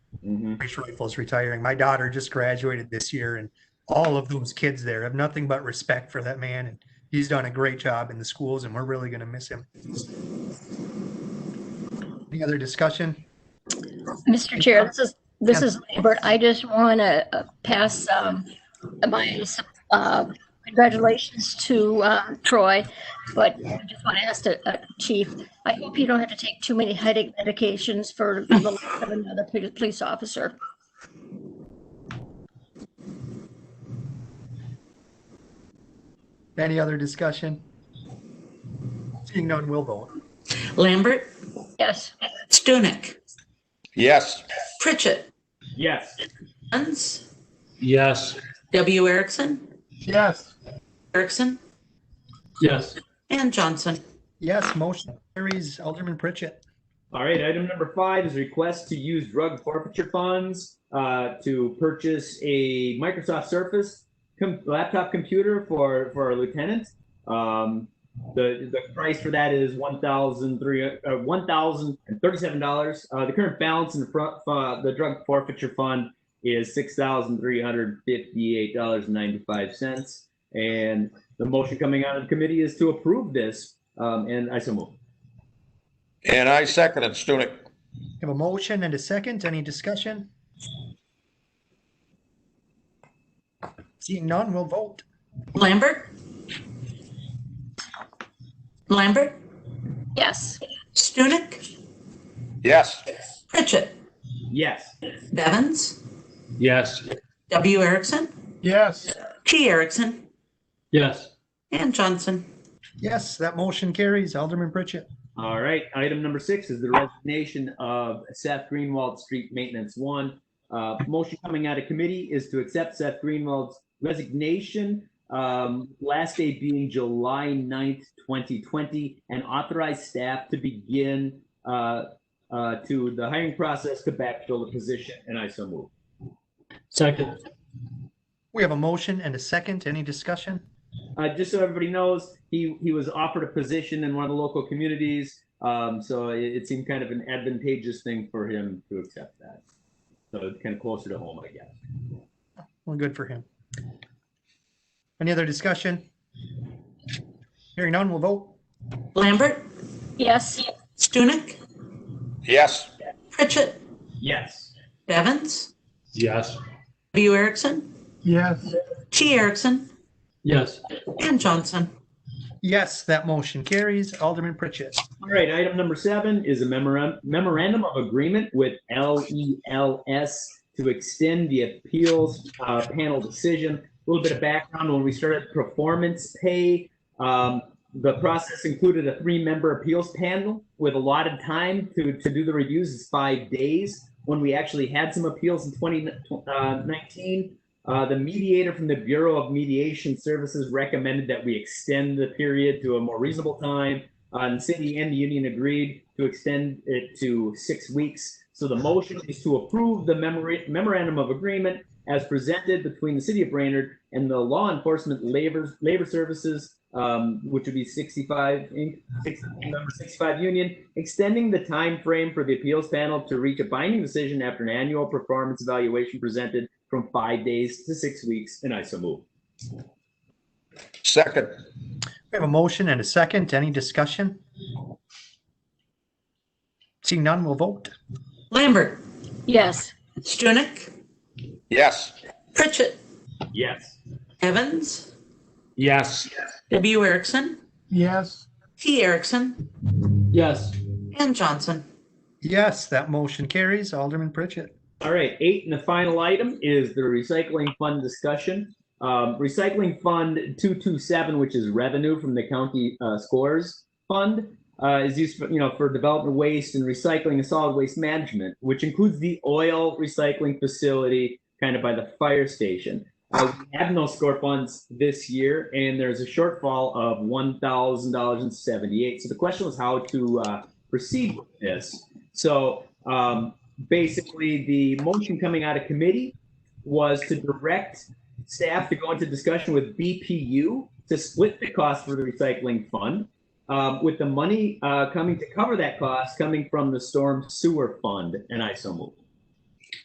Mhm. Rich Rifle's retiring. My daughter just graduated this year, and all of those kids there have nothing but respect for that man. And he's done a great job in the schools, and we're really going to miss him. Any other discussion? Mr. Chair, this is, this is Lambert. I just want to pass um, my uh, congratulations to um, Troy, but I just want to ask the uh, chief, I hope you don't have to take too many headache medications for the life of another poli- police officer. Any other discussion? Seeing none, we'll vote. Lambert, Yes, Stunek, Yes. Pritchett, Yes. Huns, Yes. W. Erickson, Yes. Erickson, Yes. and Johnson. Yes, motion carries. Alderman Pritchett. All right, item number five is request to use drug forfeiture funds uh, to purchase a Microsoft Surface com- laptop computer for, for our lieutenant. Um, the, the price for that is one thousand three uh, one thousand and thirty seven dollars. Uh, the current balance in the front uh, the drug forfeiture fund is six thousand three hundred fifty eight dollars and ninety five cents. And the motion coming out of committee is to approve this. Um, and I so move. And I second it, Stunek. Have a motion and a second. Any discussion? Seeing none, we'll vote. Lambert? Lambert, yes. Stunek, Yes. Pritchett, Yes. Bevins, Yes. W. Erickson, Yes. T. Erickson, Yes. and Johnson. Yes, that motion carries. Alderman Pritchett. All right, item number six is the resignation of Seth Greenwald, Street Maintenance One. Uh, motion coming out of committee is to accept Seth Greenwald's resignation, um, last day being July 9th, twenty twenty, and authorize staff to begin, uh, uh, to the hiring process to backfill the position, and I so move. Second, We have a motion and a second. Any discussion? Uh, just so everybody knows, he, he was offered a position in one of the local communities. Um, so it, it seemed kind of an advantageous thing for him to accept that. So it's kind of closer to home, I guess. Well, good for him. Any other discussion? Hearing none, we'll vote. Lambert, Yes, Stunek, Yes. Pritchett, Yes. Bevins, yes, W. Erickson, Yes. T. Erickson, yes, and Johnson. Yes, that motion carries. Alderman Pritchett. All right. Item number seven is a memorandum, memorandum of agreement with LELS to extend the appeals uh, panel decision. A little bit of background when we started performance pay, um, the process included a three-member appeals panel with allotted time to, to do the reviews is five days. When we actually had some appeals in 2019, uh, the mediator from the Bureau of Mediation Services recommended that we extend the period to a more reasonable time. Uh, and the city and the union agreed to extend it to six weeks. So the motion is to approve the memora- memorandum of agreement as presented between the city of Brainerd and the law enforcement labor, labor services, um, which would be 65, Inc., 60 number 65 union, extending the time frame for the appeals panel to reach a binding decision after an annual performance evaluation presented from five days to six weeks. And I so move. Second. We have a motion and a second. Any discussion? Seeing none, we'll vote. Lambert, yes, Stunek, Yes. Pritchett, Yes. Evans, yes, W. Erickson. Yes. T. Erickson yes, and Johnson. Yes, that motion carries. Alderman Pritchett. All right, eight and the final item is the recycling fund discussion. Um, recycling fund 227, which is revenue from the county uh, scores fund, uh, is used for, you know for development waste and recycling and solid waste management, which includes the oil recycling facility kind of by the fire station. Uh, we have no score funds this year, and there's a shortfall of $1,000.78. So the question was how to uh, proceed with this. So um, basically the motion coming out of committee was to direct staff to go into discussion with BPU to split the cost for the recycling fund, um, with the money uh, coming to cover that cost coming from the storm sewer fund. And I so move.